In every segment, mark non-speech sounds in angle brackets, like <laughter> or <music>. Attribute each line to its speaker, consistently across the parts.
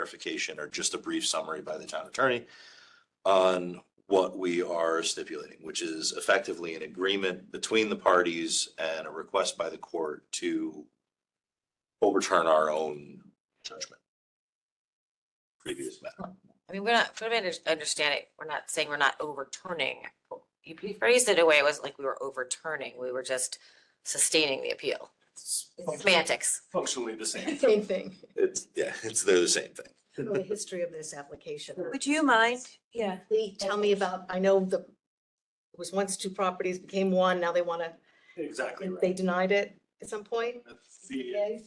Speaker 1: clarification or just a brief summary by the town attorney on what we are stipulating, which is effectively an agreement between the parties and a request by the court to overturn our own judgment. Previous matter.
Speaker 2: I mean, we're not, for me to understand it, we're not saying we're not overturning. You you phrased it away, it wasn't like we were overturning, we were just sustaining the appeal. Semantics.
Speaker 3: functionally the same.
Speaker 4: Same thing.
Speaker 1: It's, yeah, it's, they're the same thing.
Speaker 4: The history of this application.
Speaker 5: Would you mind? Yeah.
Speaker 4: Lee, tell me about, I know the, it was once two properties, became one, now they want to,
Speaker 3: Exactly
Speaker 4: they
Speaker 3: right.
Speaker 4: denied it at some point?
Speaker 3: The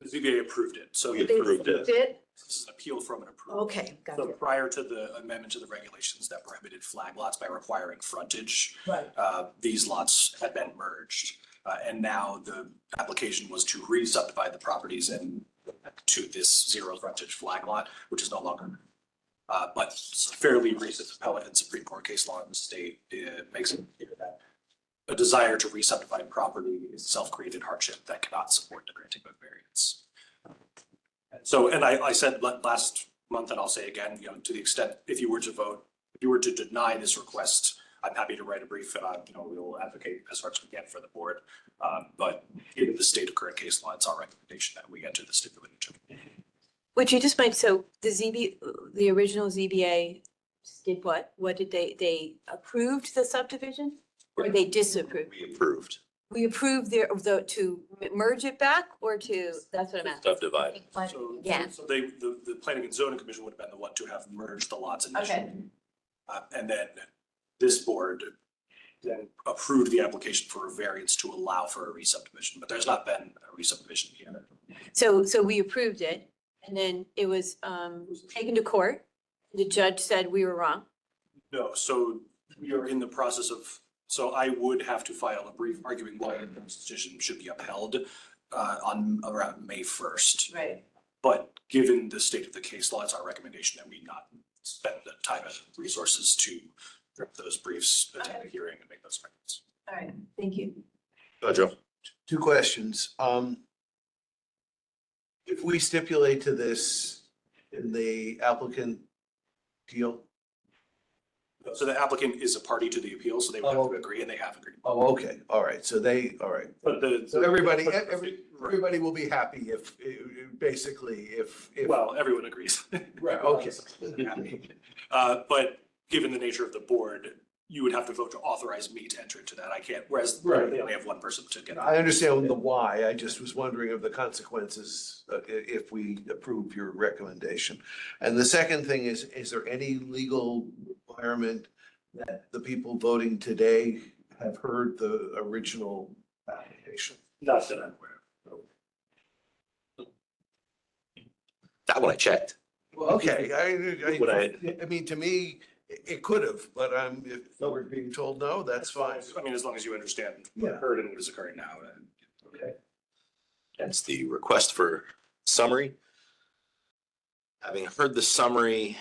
Speaker 3: the ZBA approved it, so
Speaker 1: We
Speaker 3: this
Speaker 4: They
Speaker 1: approved it.
Speaker 4: Did?
Speaker 3: is an appeal from an approval.
Speaker 4: Okay, got
Speaker 3: So
Speaker 4: it.
Speaker 3: prior to the amendment to the regulations that prohibited flag lots by requiring frontage,
Speaker 4: Right.
Speaker 3: uh, these lots had been merged. Uh, and now the application was to re-subdivide the properties and to this zero frontage flag lot, which is no longer. Uh, but fairly recent appellate and Supreme Court case law in the state, it makes it clear that a desire to re-subdivide property is a self-created hardship that cannot support the granting of variance. And So, and I, I said la- last month, and I'll say again, you know, to the extent, if you were to vote, if you were to deny this request, I'm happy to write a brief, and I, you know, we will advocate as much as we can for the board. Um, but in the state of current case law, it's our recommendation that we enter the stipulated judgment.
Speaker 5: Would you just mind, so the ZB, the original ZBA did what? What did they, they approved the subdivision? Or they disapproved?
Speaker 1: We approved.
Speaker 5: We approved their, the, to merge it back or to, that's what I'm asking.
Speaker 1: Subdivided.
Speaker 3: So-
Speaker 2: Yeah.
Speaker 3: So they, the, the planning and zoning commission would have been the one to have merged the lots initially. Uh, and then this board then approved the application for a variance to allow for a re-subdivision, but there's not been a re-subdivision yet.
Speaker 5: So, so we approved it and then it was, um, taken to court. The judge said we were wrong.
Speaker 3: No, so we are in the process of, so I would have to file a brief arguing why this decision should be upheld uh, on around May first.
Speaker 5: Right.
Speaker 3: But given the state of the case law, it's our recommendation that we not spend the time and resources to draft those briefs, attend the hearing and make those amendments.
Speaker 5: All right, thank you.
Speaker 1: Go, Joe.
Speaker 6: Two questions. Um, if we stipulate to this in the applicant deal,
Speaker 3: So the applicant is a party to the appeal, so they would have
Speaker 6: Oh.
Speaker 3: to agree and they have agreed.
Speaker 6: oh, okay, all right, so they, all right.
Speaker 3: But the.
Speaker 6: So everybody, e- every,
Speaker 3: Right.
Speaker 6: everybody will be happy if, eh, basically, if, if.
Speaker 3: Well, everyone agrees.
Speaker 6: Right,
Speaker 3: <laughs>
Speaker 6: okay.
Speaker 3: Uh, but given the nature of the board, you would have to vote to authorize me to enter into that. I can't, whereas
Speaker 6: Right.
Speaker 3: they only have one person to get. on.
Speaker 6: I understand the why, I just was wondering of the consequences uh, i- if we approve your recommendation. And the second thing is, is there any legal requirement that the people voting today have heard the original application?
Speaker 3: Not that I'm aware of.
Speaker 1: That one I checked.
Speaker 6: Well, okay,
Speaker 1: Would
Speaker 6: I,
Speaker 1: I-
Speaker 6: I, I mean, to me, it it could have, but I'm, if we're being told no, that's fine.
Speaker 3: I mean, as long as you understand
Speaker 6: Yeah.
Speaker 3: what heard and what is occurring now. and-
Speaker 1: That's the request for summary. Having heard the summary,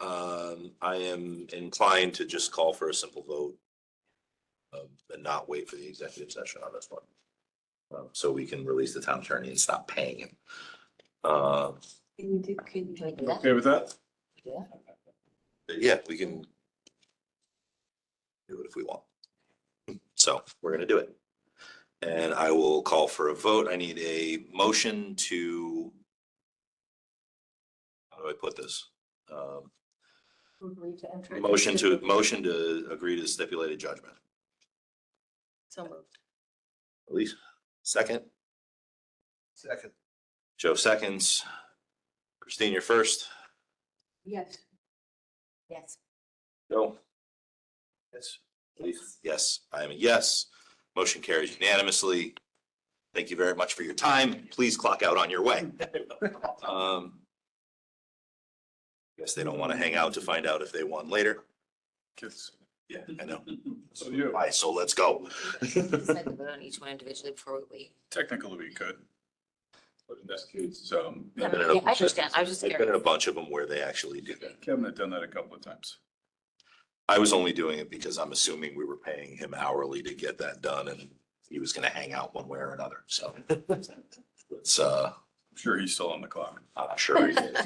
Speaker 1: um, I am inclined to just call for a simple vote. um, And not wait for the executive session on this one. Um, So we can release the town attorney and stop paying him. Uh,
Speaker 5: Can you do, can you like that?
Speaker 3: Okay with that?
Speaker 1: yeah, we can. Do it if we want. So we're gonna do it. And I will call for a vote. I need a motion to. How do I put this? Um, Motion to, motion to agree to stipulated judgment.
Speaker 2: So moved.
Speaker 1: Elise, second.
Speaker 6: Second,
Speaker 1: Joe seconds. Christine, you're first.
Speaker 5: Yes.
Speaker 2: Yes.
Speaker 1: Joe?
Speaker 6: yes.
Speaker 1: Elise? Yes, I am a yes. Motion carries unanimously. Thank you very much for your time. Please clock out on your
Speaker 7: <laughs>
Speaker 1: way. Um, Guess they don't want to hang out to find out if they won later. Yeah, I know.
Speaker 7: So you,
Speaker 1: All right, so let's go.
Speaker 2: Decide to vote on each one individually before we
Speaker 7: technically we could. But in this case, um,
Speaker 2: leave.
Speaker 1: no,
Speaker 2: Yeah,
Speaker 1: no.
Speaker 2: I understand, I was just
Speaker 1: I've been in a
Speaker 2: curious.
Speaker 1: bunch of them where they actually do that.
Speaker 7: Kevin had done that a couple of times.
Speaker 1: I was only doing it because I'm assuming we were paying him hourly to get
Speaker 7: <laughs>
Speaker 1: that done and he was gonna hang out one way or another, so. Let's uh,
Speaker 8: sure he's still on the clock.
Speaker 7: I'm sure he is.